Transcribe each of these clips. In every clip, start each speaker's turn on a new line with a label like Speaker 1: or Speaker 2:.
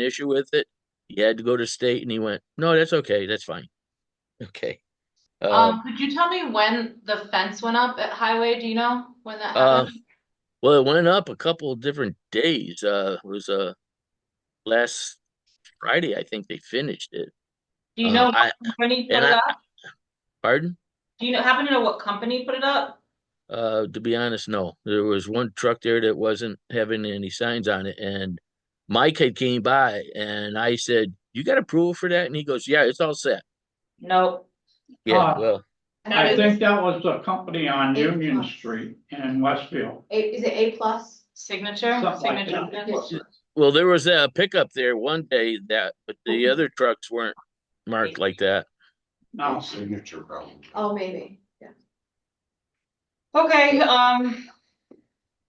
Speaker 1: an issue with it. He had to go to state and he went, no, that's okay, that's fine. Okay. Uh,
Speaker 2: Um, could you tell me when the fence went up at Highway? Do you know when that
Speaker 1: Uh,
Speaker 2: happened?
Speaker 1: well, it went up a couple of different days. Uh, it was, uh, last Friday, I think they finished it.
Speaker 2: Do you
Speaker 1: uh,
Speaker 2: know
Speaker 1: I-
Speaker 2: what company put
Speaker 1: and
Speaker 2: it
Speaker 1: I-
Speaker 2: up?
Speaker 1: Pardon?
Speaker 2: Do you know, happen to know what company put it up?
Speaker 1: Uh, to be honest, no. There was one truck there that wasn't having any signs on it, and Mike had came by, and I said, "You got approval for that?" And he goes, "Yeah, it's all set."
Speaker 2: Ah. No.
Speaker 1: Yeah,
Speaker 3: Ah.
Speaker 1: well,
Speaker 3: I think that was the company on Union Street in Westfield.
Speaker 4: A, is it A plus?
Speaker 2: Signature,
Speaker 3: Something like
Speaker 2: signature.
Speaker 3: that.
Speaker 2: fence?
Speaker 1: well, there was a pickup there one day that, but the
Speaker 2: Mhm.
Speaker 1: other trucks weren't marked like that.
Speaker 3: No,
Speaker 5: Signature problem.
Speaker 4: Oh, maybe, yeah.
Speaker 2: Okay, um,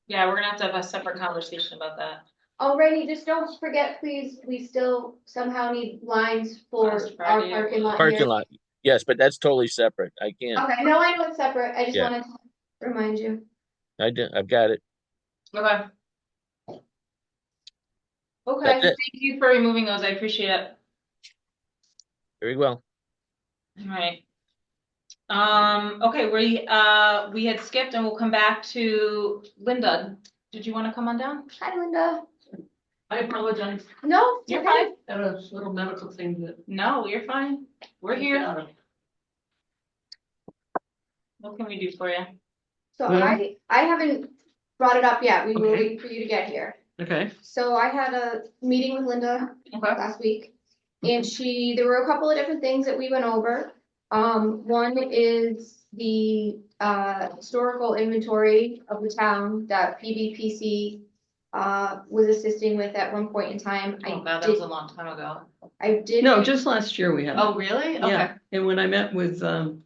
Speaker 2: yeah, we're gonna have to have a separate conversation about that.
Speaker 4: Alrighty, Oh, just don't forget, please, we still somehow need lines for
Speaker 2: Last
Speaker 4: our
Speaker 2: Friday.
Speaker 4: parking lot
Speaker 1: Parking
Speaker 4: here.
Speaker 1: lot, yes, but that's totally separate. I can't.
Speaker 4: Okay, no, I know it's separate, I just
Speaker 1: Yeah.
Speaker 4: wanted to remind you.
Speaker 1: I didn't. I've got it.
Speaker 2: Okay. Okay,
Speaker 1: That's it.
Speaker 2: thank you for removing those. I appreciate it.
Speaker 1: Very well.
Speaker 2: Alright. Um, okay, we, uh, we had skipped and we'll come back to Linda. Did you wanna come on down?
Speaker 4: Hi, Linda.
Speaker 6: I apologize.
Speaker 4: No, you're fine.
Speaker 6: Had a little medical thing that.
Speaker 2: No, you're fine. We're here. What can we do for you?
Speaker 4: So
Speaker 6: Well-
Speaker 4: I, I haven't brought it up yet, we were
Speaker 6: Okay.
Speaker 4: waiting for you to get here.
Speaker 6: Okay.
Speaker 4: So I had a meeting with Linda
Speaker 2: Okay.
Speaker 4: last week. And she, there were a couple of different things that we went over. Um, one is the uh historical inventory of the town that PBPC uh was assisting with at one point in time.
Speaker 2: Oh
Speaker 4: I
Speaker 2: god, that was
Speaker 4: did,
Speaker 2: a long time ago.
Speaker 4: I did.
Speaker 6: No, just last year we had. it.
Speaker 2: Oh, really? Okay.
Speaker 6: Yeah, and when I met with, um,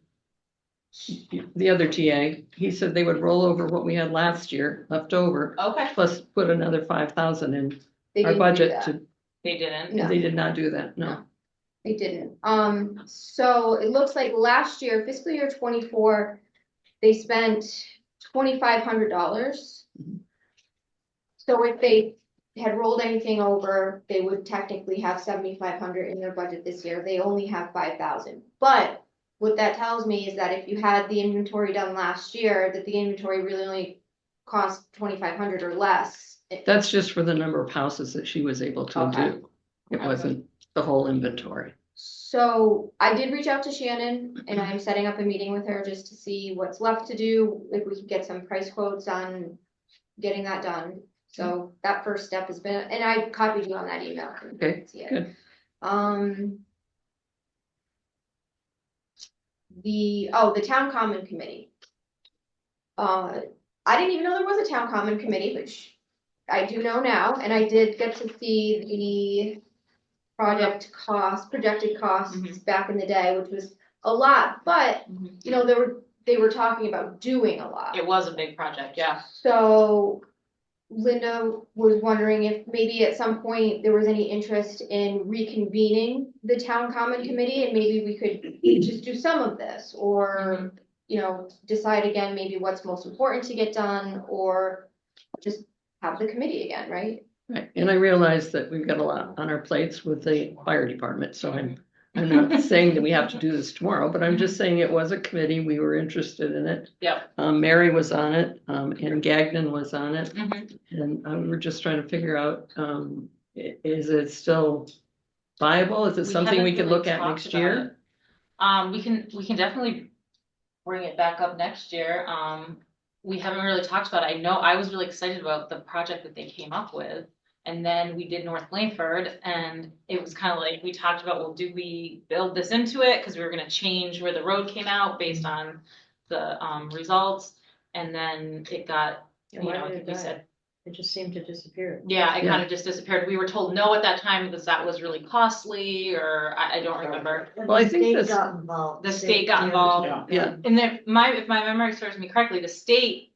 Speaker 6: the other TA, he said they would roll over what we had last year left over,
Speaker 2: Okay.
Speaker 6: plus put another five thousand in
Speaker 4: they
Speaker 6: our
Speaker 4: didn't do
Speaker 6: budget
Speaker 4: that.
Speaker 6: to,
Speaker 2: They didn't.
Speaker 4: No.
Speaker 6: they did not do that, no.
Speaker 4: They didn't. Um, so it looks like last year fiscal year twenty-four, they spent twenty-five hundred dollars.
Speaker 6: Mhm.
Speaker 4: So if they had rolled anything over, they would technically have seventy-five hundred in their budget this year. They only have five thousand. But what that tells me is that if you had the inventory done last year, that the inventory really only cost twenty-five hundred or less.
Speaker 6: That's just for the number of houses that she was able to
Speaker 4: Okay.
Speaker 6: do. It wasn't the whole inventory.
Speaker 4: So I did reach out to Shannon and I'm setting up a meeting with her just to see what's left to do, if we can get some price quotes on getting that done. So that first step has been, and I copied you on that email. so you can
Speaker 6: Okay,
Speaker 4: see it.
Speaker 6: good.
Speaker 4: Um. The, oh, the town common committee. Uh, I didn't even know there was a town common committee, which I do know now, and I did get to see the. Project cost, projected costs
Speaker 2: Mhm.
Speaker 4: back in the day, which was a lot, but,
Speaker 2: Mhm.
Speaker 4: you know, they were, they were talking about doing a lot.
Speaker 2: It was a big project, yeah.
Speaker 4: So Linda was wondering if maybe at some point there was any interest in reconvening the town common committee and maybe we could just do some of this or, you know, decide again maybe what's most important to get done or just have the committee again, right?
Speaker 6: Right, and I realize that we've got a lot on our plates with the fire department, so I'm, I'm not saying that we have to do this tomorrow, but I'm just saying it was a committee, we were interested in it.
Speaker 2: Yep.
Speaker 6: Um, Mary was on it, um, and Gagnon was on it,
Speaker 2: Mhm.
Speaker 6: and uh, we were just trying to figure out, um, i- is it still viable? Is it
Speaker 2: We
Speaker 6: something we
Speaker 2: haven't
Speaker 6: could
Speaker 2: really
Speaker 6: look at
Speaker 2: talked
Speaker 6: next
Speaker 2: about it.
Speaker 6: year?
Speaker 2: Um, we can, we can definitely bring it back up next year. Um, we haven't really talked about it. I know I was really excited about the project that they came up with. And then we did North Blanford and it was kind of like, we talked about, well, do we build this into it? Cause we were gonna change where the road came out based on the, um, results. And then it got, you
Speaker 7: why
Speaker 2: know, I
Speaker 7: did it
Speaker 2: think we
Speaker 7: die?
Speaker 2: said,
Speaker 7: It just seemed to disappear.
Speaker 2: Yeah, it
Speaker 6: Yeah.
Speaker 2: kind of just disappeared. We were told no at that time because that was really costly or I, I don't remember.
Speaker 6: Well, I think
Speaker 7: The
Speaker 6: this-
Speaker 7: state got involved.
Speaker 2: The state got involved.
Speaker 6: Yeah, yeah,
Speaker 2: And then my, if my memory serves me correctly, the state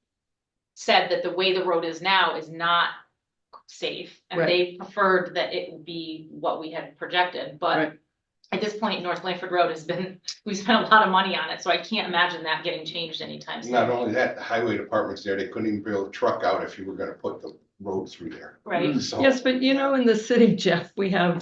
Speaker 2: said that the way the road is now is not safe. And
Speaker 6: Right.
Speaker 2: they preferred that it would be what we had projected, but
Speaker 6: Right.
Speaker 2: at this point, North Lanford Road has been, we spent a lot of money on it, so I can't imagine that getting changed anytime soon.
Speaker 5: Not only that, the highway department's there, they couldn't even build a truck out if you were gonna put the road through there.
Speaker 2: right?
Speaker 5: So-
Speaker 6: Yes, but you know, in the city, Jeff, we have